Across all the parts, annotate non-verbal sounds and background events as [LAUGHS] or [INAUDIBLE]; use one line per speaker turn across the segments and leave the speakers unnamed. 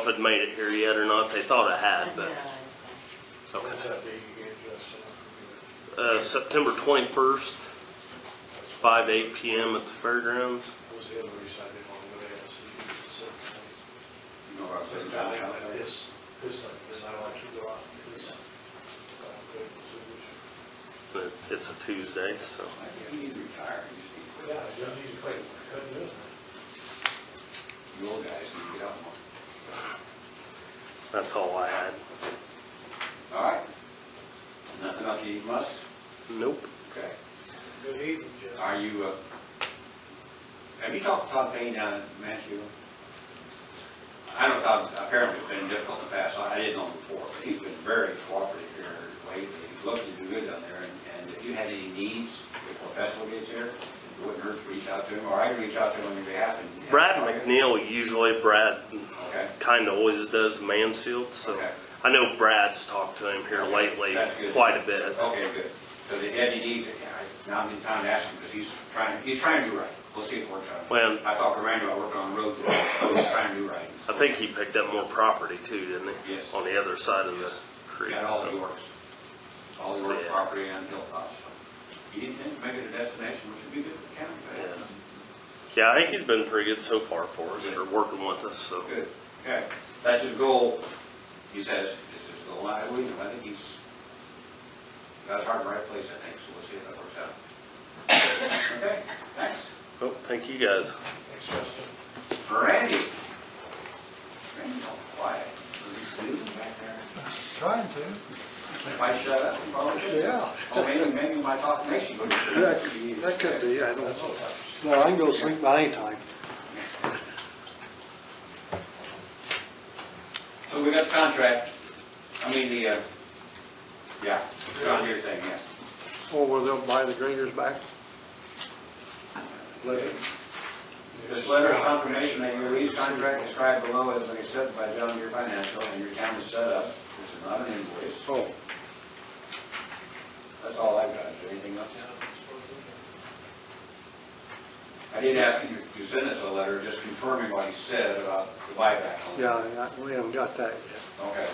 if it made it here yet or not. They thought it had, but so,
When's that date you gave us?
uh, September 21st, 5 to 8 p.m. at the fairgrounds.
That was the other reason I didn't want to go ahead, so you could just sit and-
You know what I'm saying?
I think
downtown?
that This, this, like, this, I like to go out, this, uh, good, so
But it's a Tuesday, so
I think you need to retire, you just
we should-
need to quit.
Yeah, I don't need to play, couldn't do it.
You old guys need to get out more.
that's all I had.
All right. Nothing else you need from us?
Nope.
Okay.
Good evening, Jeff.
Are you, uh, have you talked to Todd Payne down in Mansfield? I know Todd's apparently it's been difficult in the past, I I didn't know him before, but he's been very cooperative here lately. He's looking to do good down there, and- and if you had any needs before festival gets here, it wouldn't hurt to reach out to him, or I can reach out to him on your behalf and.
Brad McNeil usually Brad
Okay.
kind of always does Mansfield, so
Okay.
I know Brad's talked to him here lately
That's good.
quite a bit.
Okay, good. Because if Eddie needs it, yeah, I- now I'm in town to ask him, because he's trying, he's trying to do right. Let's get it worked out.
Well-
I talked to Randy about working on roads, so he's trying to do right.
[LAUGHS] I think he picked up more property too, didn't he?
Yes.
On the other side of the creek.
Got all
so.
the works, all the
So,
works
yeah.
property and hilltops. He didn't think to make it a destination, which would be good for the county,
Yeah.
but
Yeah, I think he's been pretty good so far for us, or working with us, so.
good. Okay, that's his goal, he says, is his goal. I believe him, I think he's got his heart in the right place, I think, so we'll see if that works out. [LAUGHS] Okay, thanks.
Well, Oh, thank you guys.
Thanks, Justin.
Randy. Randy's all quiet. Is he snoozing back there?
Trying to,
If I shut up, he probably is.
yeah.
Oh, maybe, maybe my talk makes you go to sleep.
That could- that could be, I don't know. No, I can go sleep by any time.
So we got the contract, I mean, the, uh, yeah, John Deere thing, yeah.
Or where Oh, they'll buy the graders back. Later.
This letter of confirmation that your lease contract described below has been accepted by John Deere Financial and your account is set up. This is not an invoice.
Oh,
That's all I've got. Is there anything else?
Yeah, I suppose we can.
I did ask you to send us a letter just confirming what he said about the buyback.
yeah, I- we haven't got that yet.
Okay.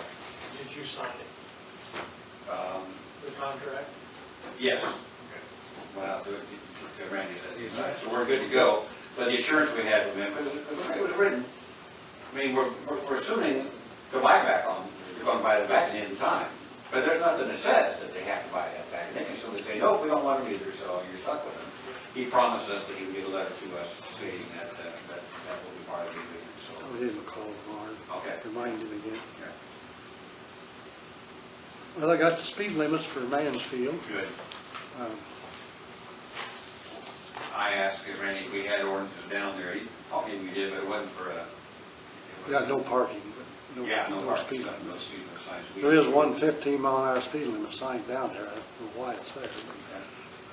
Did you sign it,
Um,
the contract?
Yes. Well, the- the- the Randy said, he's right, so we're good to go. But the assurance we had from him, because it was- it was written, I mean, we're, we're- we're assuming the buyback on, you're going to buy it back at the end of time. But there's nothing that says that they have to buy that back. And they can simply say, no, we don't want them either, so you're stuck with them. He promised us that he would get a letter to us stating that, that, that that will be part of the agreement, so.
I'll give him a call tomorrow.
Okay.
Remind him again.
yeah.
Well, I got the speed limits for Mansfield.
Good.
Um,
I asked Randy if we had ordinances down there. He thought maybe we did, but it wasn't for a. it was-
Yeah, no parking.
Yeah, no parking,
speed
no
limits.
speed limit signs. We-
There is one 15 mile an hour speed limit sign down there. I don't know why it's there. but,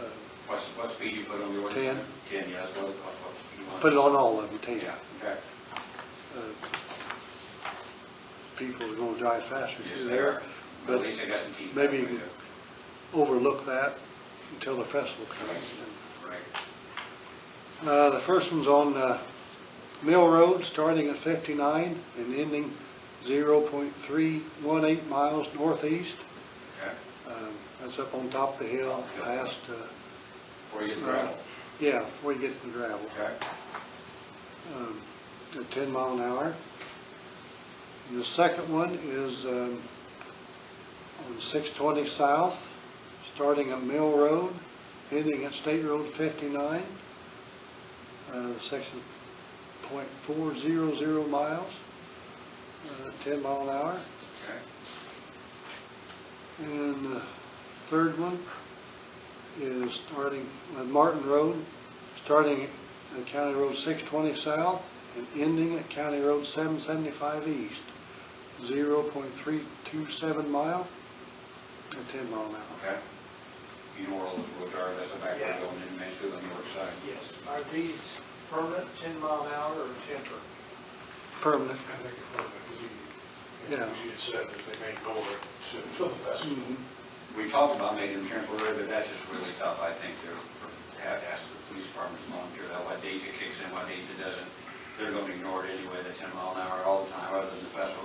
uh,
What's, what speed you put on the ordinance? Ten. Ten, yeah, that's what, what- what you want.
Put it on all of them, 10.
Yeah, okay.
Uh, People are gonna drive faster
Just
through
there.
there.
At
But
least they got some teeth.
maybe
Right
you
there.
overlook that until the festival comes.
Right.
Uh, The first one's on uh, Mill Road, starting at 59 and ending 0.318 miles northeast.
Okay.
Um, That's up on top of the hill, past, uh,
Before you get the gravel.
yeah, before you get to the gravel.
Okay.
um, at 10 mile an hour. And the second one is um, on 620 South, starting at Mill Road, ending at State Road 59, uh, section .400 miles, uh, 10 mile an hour.
Okay.
And the third one is starting at Martin Road, starting at County Road 620 South and ending at County Road 775 East, 0.327 mile at 10 mile an hour.
Okay. You know where all those roads are, that's a back road
Yeah.
going in Mansfield on the north side.
Yes. Are these permanent, ten mile an hour or temporary?
Permanent.
I think it's permanent, because you,
Yeah. Mm-hmm.
you said that they made over to, to the festival.
We talked about making them temporary, but that's just really tough, I think, to have to ask the police department to monitor that, what days it kicks in, what days it doesn't. they're gonna ignore it anyway, the ten mile an hour all the time, other than the festival